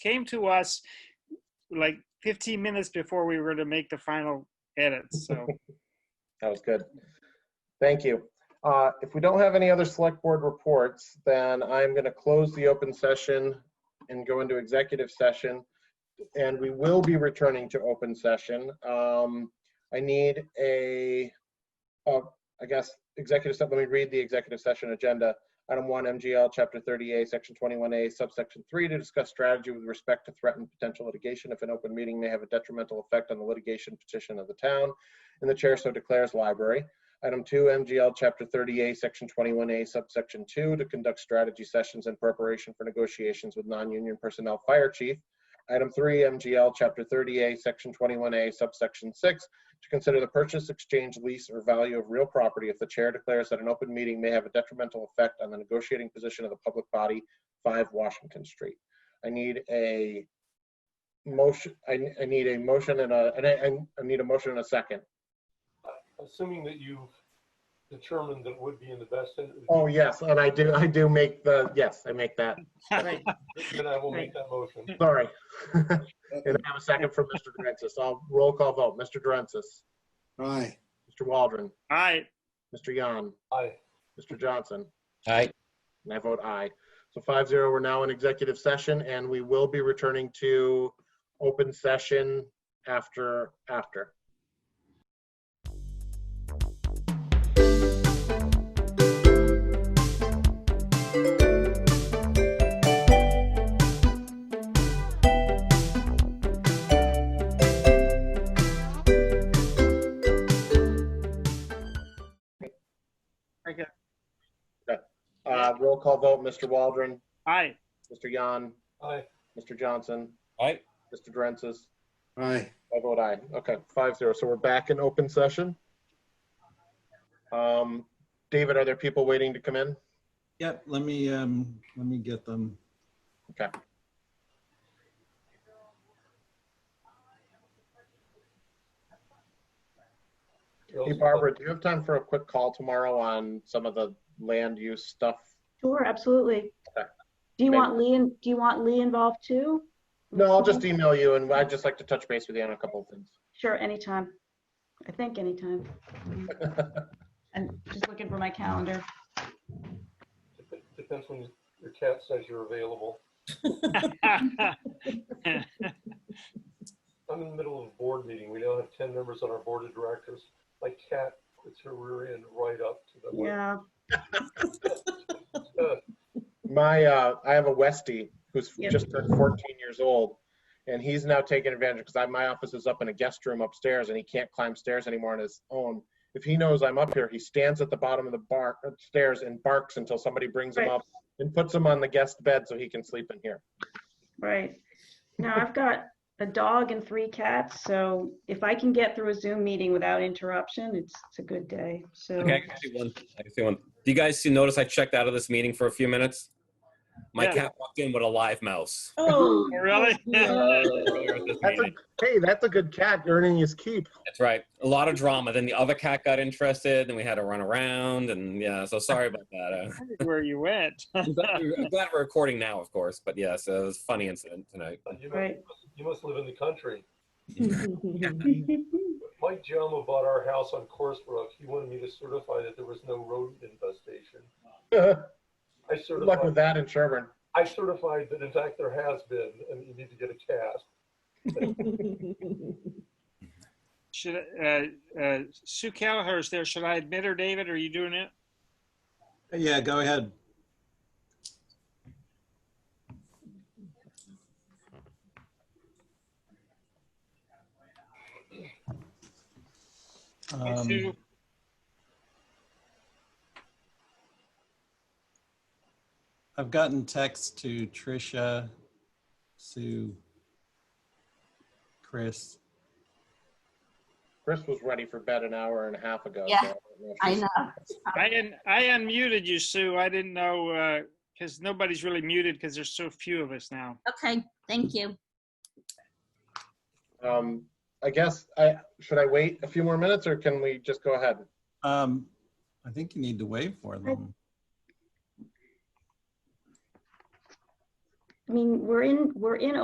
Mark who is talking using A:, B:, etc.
A: came to us like 15 minutes before we were to make the final edits. So
B: That was good. Thank you. Uh, If we don't have any other select board reports, then I'm going to close the open session and go into executive session. And we will be returning to open session. Um, I need a, oh, I guess, executive, se- let me read the executive session agenda. Item one, MGL, Chapter 30A, Section 21A, subsection 3, to discuss strategy with respect to threatened potential litigation if an open meeting may have a detrimental effect on the litigation petition of the town and the chair so declares library. Item two, MGL Chapter 30A, Section 21A, Subsection 2, to conduct strategy sessions in preparation for negotiations with non-union personnel fire chief. Item three, MGL Chapter 30A, Section 21A, Subsection 6, to consider the purchase, exchange, lease, or value of real property if the chair declares that an open meeting may have a detrimental effect on the negotiating position of the public body, 5 Washington Street. I need a motion, I, I need a motion and a, and I, and I need a motion and a second.
C: Assuming that you determined that would be in the best, interest,
B: Oh, yes, and I do, I do make the, yes, I make that,
D: Right.
C: then I will make that motion.
B: sorry. And I have a second from Mr. Durensis. I'll roll call vote. Mr. Durensis,
E: Aye.
B: Mr. Waldron,
A: all right.
B: Mr. Yan,
C: Aye.
B: Mr. Johnson,
F: Aye.
B: and I vote aye. So five zero, we're now in executive session and we will be returning to open session after, after. Uh, roll call vote, Mr. Waldron,
A: All right.
B: Mr. Yan,
C: Aye.
B: Mr. Johnson,
F: Aye.
B: Mr. Durensis,
E: Aye.
B: I vote aye. oh Okay, five zero. So we're back in open session. Um, David, are there people waiting to come in?
E: Yep, let me, um, let me get them.
B: Hey Barbara, do you have time for a quick call tomorrow on some of the land use stuff?
G: Sure, absolutely.
B: Okay.
G: Do you
B: Maybe-
G: want Lee, in- do you want Lee involved too?
B: No, I'll just email you and I'd just like to touch base with you on a couple of things.
G: Sure, anytime. I think anytime. I'm just looking for my calendar.
C: Dep- Depends when your cat says you're available. I'm in the middle of a board meeting. We now have ten members on our board of directors. My cat puts her rear end right up to the.
G: Yeah,
C: Uh,
B: My, uh, I have a Westie who's
G: Yeah.
B: just turned fourteen years old. And he's now taking advantage because I, my office is up in a guest room upstairs and he can't climb stairs anymore on his own. If he knows I'm up here, he stands at the bottom of the bar, uh, stairs and barks until somebody brings him
G: Right.
B: up and puts him on the guest bed so he can sleep in here.
G: right. Now, I've got a dog and three cats, so if I can get through a Zoom meeting without interruption, it's, it's a good day. So,
F: Okay, I can see one. I can see one. Do you guys see, notice I checked out of this meeting for a few minutes? My
A: Yeah.
F: cat walked in with a live mouse.
D: Oh,
A: really?
F: earlier at this
B: That's a,
F: meeting.
B: hey, that's a good cat earning his keep.
F: That's right. A lot of drama. Then the other cat got interested, and we had to run around, and yeah. So sorry about that. Uh,
A: Where you went.
F: I'm, glad we- I'm glad we're recording now, of course. But yeah, so it was a funny incident tonight.
C: you must-
G: right.
C: You must live in the country.
G: Good
C: Mike Giammo bought our house on Course Brook. He wanted me to certify that there was no rodent infestation.
B: Good
C: I
B: luck with
C: certified,
B: that in Sherburne.
C: I certified that in fact there has been, and you need to get a cat.
A: Should, uh, uh, Sue Callaher's there. Should I admit her, David? Are you doing it?
E: Yeah, go ahead.
A: Hey,
E: Um,
A: Sue?
E: I've gotten texts to Trisha, Sue, Chris.
B: Chris was ready for bed an hour and a half ago.
D: Yeah,
B: so I don't know if
D: I
B: she's-
D: know.
A: I, un- I unmuted you, Sue. I didn't know because nobody's really muted because there's so few of us now.
D: Okay, thank you.
B: Um, I guess I should I wait a few more minutes or can we just go ahead?
E: Um, I think you need to wait for them.
G: I mean, we're in, we're in